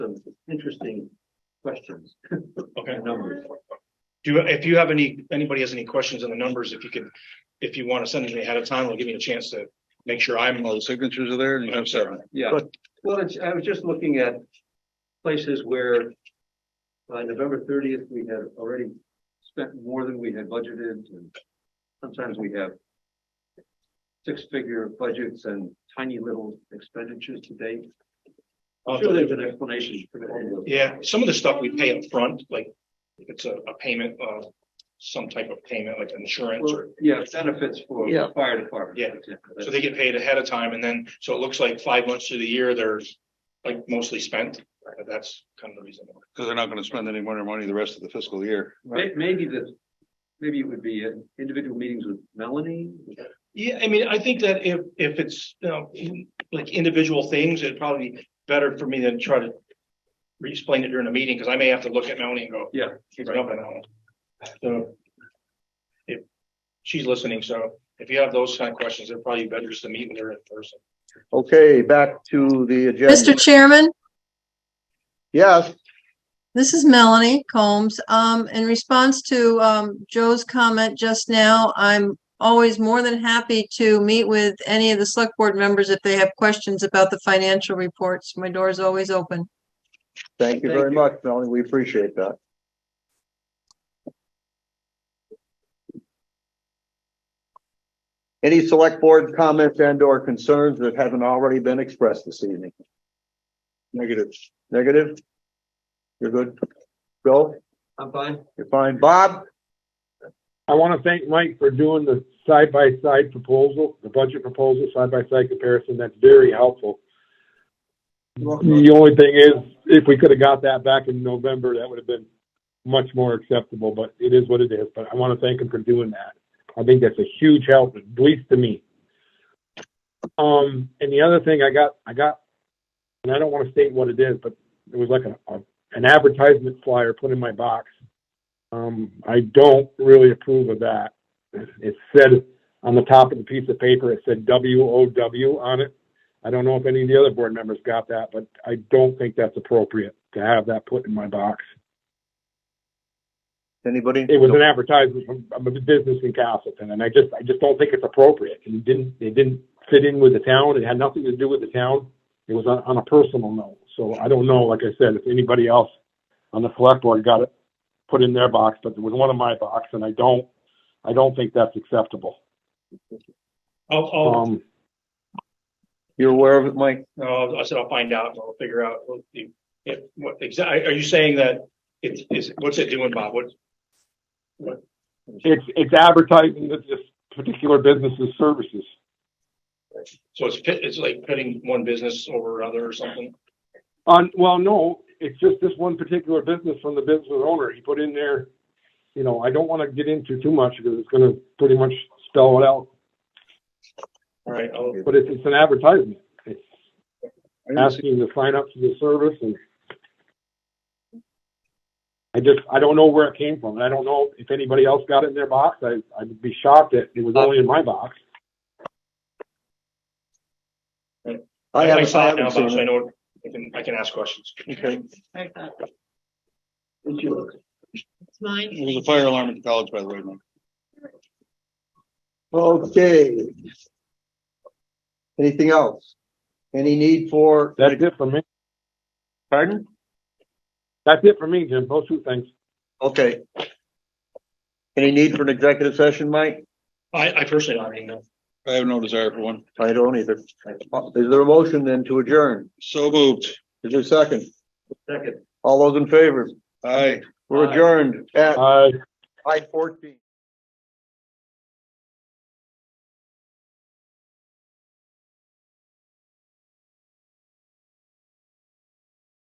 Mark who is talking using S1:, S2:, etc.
S1: interesting questions
S2: Okay.
S1: and numbers.
S2: Do, you- if you have any, anybody has any questions on the numbers, if you could, if you want to send them ahead of time, it'll give me a chance to make sure I'm.
S3: All the signatures are there and you have seven.
S1: Yeah,
S2: But-
S1: well, it's, I was just looking at places where by November thirtieth, we had already spent more than we had budgeted and sometimes we have six-figure budgets and tiny little expenditures to date. I'm sure there's an explanation for that.
S2: Oh, Yeah, some of the stuff we pay up front, like if it's a, a payment, uh, some type of payment like insurance
S1: Well,
S2: or,
S1: yeah, benefits for
S3: Yeah.
S1: the fire department.
S2: Yeah. so they get paid ahead of time and then, so it looks like five months of the year, they're like mostly spent. But That's kind of the reason.
S3: Because they're not going to spend any more money the rest of the fiscal year.
S1: May- Maybe the, maybe it would be uh, individual meetings with Melanie.
S2: Yeah, I mean, I think that if, if it's, you know, like individual things, it'd probably be better for me than try to re-explain it during a meeting, because I may have to look at Melanie and go.
S1: Yeah,
S2: She's jumping on. So if she's listening, so if you have those kind of questions, it'd probably be better just to meet with her in person.
S4: Okay, back to the agenda.
S5: Mr. Chairman,
S4: Yes,
S5: this is Melanie Combs. Um, in response to, um, Joe's comment just now, I'm always more than happy to meet with any of the select board members if they have questions about the financial reports. My door is always open.
S4: thank you
S1: Thank
S4: very
S1: you.
S4: much, Melanie. We appreciate that. Any select board comments and or concerns that haven't already been expressed this evening? Negative. Negative? You're good. Bill,
S1: I'm fine.
S4: you're fine. Bob?
S6: I want to thank Mike for doing the side-by-side proposal, the budget proposal, side-by-side comparison. That's very helpful. The only thing is, if we could have got that back in November, that would have been much more acceptable, but it is what it is. But I want to thank him for doing that. I think that's a huge help, at least to me. Um, and the other thing I got, I got, and I don't want to state what it is, but it was like a, a- an advertisement flyer put in my box. Um, I don't really approve of that. It said on the top of the piece of paper, it said W O W on it. I don't know if any of the other board members got that, but I don't think that's appropriate to have that put in my box.
S4: Anybody?
S6: It was an advertisement from, from a business in Castleton, and I just, I just don't think it's appropriate. It didn't, it didn't fit in with the town. It had nothing to do with the town. It was on, on a personal note. So I don't know, like I said, if anybody else on the select board got it put in their box, but it was one of my box, and I don't, I don't think that's acceptable.
S2: I'll, I'll,
S6: Um,
S4: You're aware of it, Mike?
S2: no, I said I'll find out, and I'll figure out what the, if, what, exactly, are you saying that it's, is, what's it doing, Bob? What,
S6: it's, it's advertising that this particular business's services.
S2: so it's, pit- it's like pitting one business over another or something?
S6: On, well, no, it's just this one particular business from the business owner. He put in there, you know, I don't want to get into too much because it's going to pretty much spell it out,
S2: All right, I'll,
S6: but it's, it's an advertisement. It's
S3: I didn't see-
S6: asking to sign up for the service and I just, I don't know where it came from. And I don't know if anybody else got it in their box. I, I'd be shocked that it was only in my box.
S4: I
S2: I
S4: haven't-
S2: saw it
S4: haven't
S2: now,
S4: seen
S2: Bob, so I know, I can, I can ask questions.
S4: Okay.
S3: It was a fire alarm at the college, by the way, Mike.
S4: Okay. Anything else? Any need for?
S6: That's it for me.
S4: Pardon?
S6: That's it for me, Jim. Those two things.
S4: Okay. Any need for an executive session, Mike?
S2: I, I personally don't even know.
S3: I have no desire for one.
S4: I don't either. Is there a motion then to adjourn?
S3: So moved.
S4: Is there a second?
S1: Second.
S4: All those in favor?
S3: Aye.
S4: We're
S1: Aye.
S4: adjourned at
S6: Uh,
S4: five fourteen.